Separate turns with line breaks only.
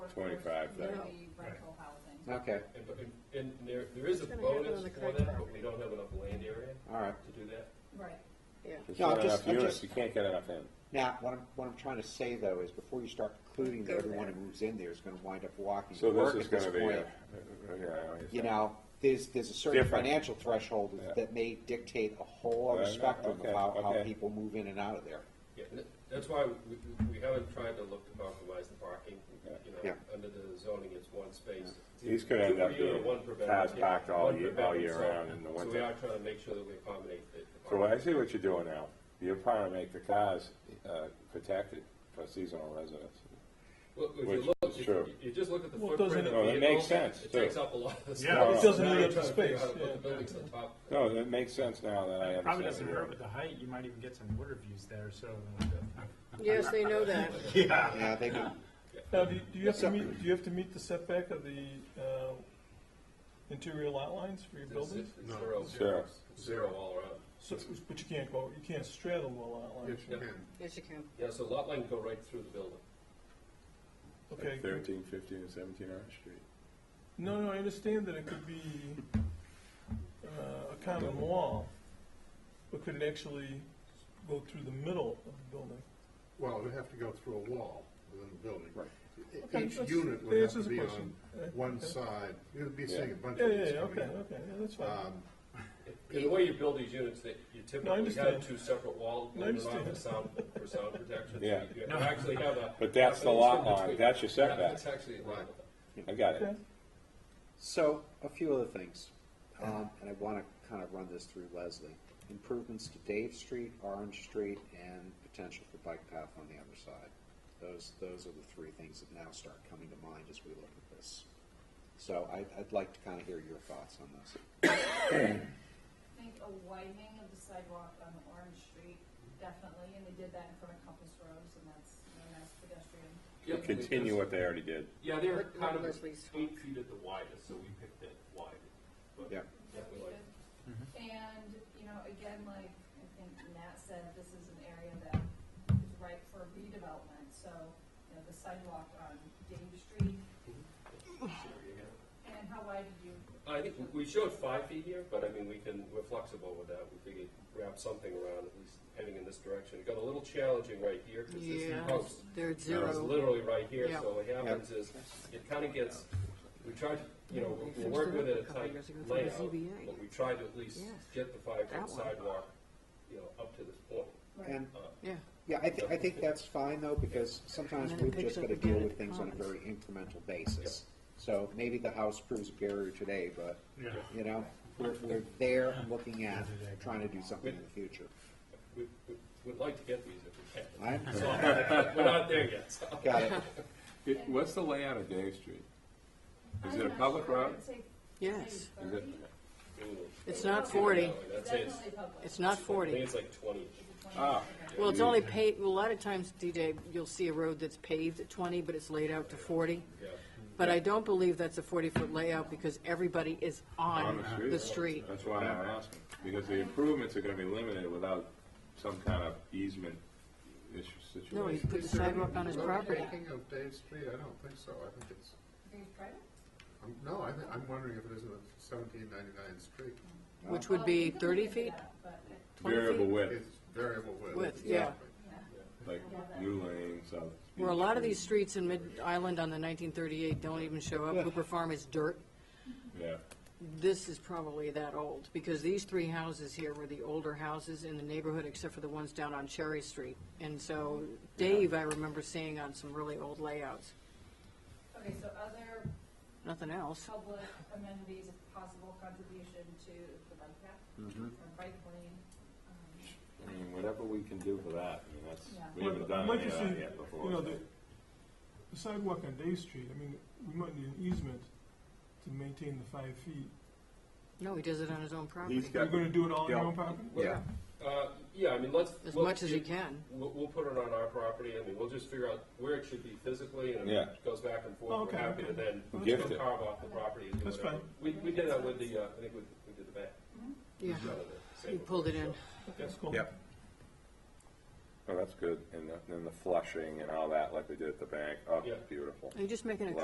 25
There'll
thousand.
be rental housing.
Okay,
And, but- and- and there, there is a
It's gonna happen
bonus
on the
for
correct
that, but
property.
we don't have enough land area
all right.
to do that.
Right.
yeah.
There's
No, I'm
not
just-
enough
I'm
units,
just-
you can't get enough in.
Now, what I'm, what I'm trying to say though is before you start concluding that
Go
everyone
there.
who moves in there is gonna wind up walking
So
to work
this is
at this
gonna be,
point,
a- yeah.
you know, there's, there's a certain
Different.
financial threshold
Yeah.
that may dictate a whole
Uh,
other
no,
spectrum
okay,
of how, how
okay.
people move in and out of there.
Yeah, and that's why we, we haven't tried to look to compromise the parking, you know,
Yeah.
under the zoning, it's one space.
These could end
Two per
up
unit,
being
one per bedroom,
cars
yeah,
packed all
one per
year- all
bedroom,
year
so-
round in the
So we
winter.
are trying to make sure that we accommodate the. the
So I
parking.
see what you're doing now. You're trying to make the cars uh, protected for seasonal residents.
Well, if
Which
you look,
is
if
true.
you- you just look at the
Well, it
footprint of the
doesn't-
vehicle.
No, that makes sense,
It
too.
takes up a lot of space.
Yeah, it doesn't
Now
eat
you're trying to
up the
figure out
space,
how to put
yeah.
the buildings on top.
No, it makes sense now that I understand.
Probably doesn't
what you're
hurt
doing.
with the height, you might even get some water views there, so. uh,
Yes, they know that.
Yeah, they do.
Now, do you, do you have to meet, do you have to meet the setback of the, uh, interior lot lines for your
It's-
buildings?
it's Zero,
Sure.
zero, zero all around.
So, but you can't go, you can't straddle the lot lines.
Yeah.
Yes, you can.
Yeah, so lot line go right through the building.
Okay,
Like 13, 15, and 17 Orange Street.
no, no, I understand that it could be, uh, a common wall, but could it actually go through the middle of the building?
Well, it would have to go through a wall within the building.
Right.
E-
Okay,
Each
that's-
unit
that
would have
answers
to
the
be on
question. Yeah.
one side, you'd be seeing a bunch
Yeah,
of
yeah,
these
yeah, okay,
coming in.
okay, yeah, that's
Uh,
fine.
Um,
And the way you build these units, that you typically
understand.
have two separate walls,
I
one around
understand.
for sound, for sound protection. so
Yeah.
You actually have a.
But that's the lot line. That's your setback.
That's actually a lot.
I got
Okay.
it.
So, a few other things, um, and I wanna kind of run this through Leslie. Improvements to Dave Street, Orange Street, and potential for bike path on the other side. Those, those are the three things that now start coming to mind as we look at this. So I, I'd like to kind of hear your thoughts on this.
I think a widening of the sidewalk on Orange Street, definitely, and they did that in front of Compass Rose, and that's, you know, that's pedestrian.
Yeah,
Continue
because-
what they already did.
Yeah, they're
Let-
kind
let
of
Leslie's
eight feet at the widest, so we picked that wide. But
Yeah.
definitely.
And, you know, again, like I think Matt said, this is an area that is ripe for redevelopment, so, you know, the sidewalk on Dave Street, and how wide did you,
I think we- we showed five feet here, but I mean, we can, we're flexible with that. We figured wrap something around, at least heading in this direction. It got a little challenging right here, because this is post.
they're at
It's literally right here,
Yeah.
so what happens is, it kind of gets, we try to, you know,
They
we're working
fixed it up
with
a
a
couple
tight
years ago through the
layout,
ZBA.
but we try to at least
Yes.
get the five-foot
That one.
sidewalk, you know, up to this point.
And,
Yeah.
yeah, I think, I think that's fine though, because sometimes
And then it
we've
picks
just
up
gotta
again
deal
at the
with things on a
commons.
very incremental basis. So maybe the house proves a barrier today, but, you know, we're, we're there and looking at, trying to do something in the future.
We, we- we'd like to get these if we
I,
can. So, We're not there yet, so.
got it.
It- What's the layout of Dave Street? Is
I'm
it a
not
public
sure, I
road?
would say
Yes.
Is
30.
it,
It's not 40.
That's it.
Definitely public.
It's not
I think
forty.
it's like twenty.
Uh,
ah,
Well, it's only paved, a lot of times, DJ, you'll see a road that's paved at twenty, but it's laid out to forty.
Yeah.
But I don't believe that's a forty-foot layout because everybody is on the street.
that's why I'm asking, because the improvements are gonna be limited without some kind of easement issue
No, he
situation.
put the
is there any
sidewalk on his
road
property.
taking of Dave Street, I don't think so, I think it's,
Are you private?
um, no, I, thi- I'm wondering if it isn't a seventeen ninety-nine street.
Which
Well,
would
we
be
can
thirty
look into
feet,
that, but it-
twenty
Variable
feet.
width,
It's variable width.
Width, yeah.
like new lanes, so.
Where a lot of these streets in Mid-Island on the nineteen thirty-eight don't even show up. Hooper Farm is dirt.
Yeah,
This is probably that old, because these three houses here were the older houses in the neighborhood, except for the ones down on Cherry Street. And so Dave, I remember seeing on some really old layouts,
Okay, so other
nothing else.
public amenities, a possible contribution to the bike path,
Mm-hmm.
or bike lane. um,
I mean, whatever we can do for that, I mean, that's,
Yeah.
we haven't done
I'd like
any of
to
that
see,
yet before.
You know,
so-
the the sidewalk on Day Street, I mean, we might need an easement to maintain the five feet.
No, he does it on his own
He's
property,
You're
got,
gonna do it all on your
Yeah.
own property?
yeah,
Uh, yeah, I mean, let's.
as
we'll-
much as he can.
We'll, we'll put it on our property, I mean, we'll just figure out where it should be physically, and if
Yeah.
it goes back and
Oh,
forth, we're
okay,
happy to
okay.
then
Well, that's
we'll
fine.
carve off the property and do
That's
whatever.
fine.
We, we did that with the, uh, I think we, we did the back.
Yeah, he pulled it in.
That's cool.
Yep. oh, that's good, and the- then the flushing and all that, like they did at the bank, oh,
Yeah.
beautiful.
Are you just making a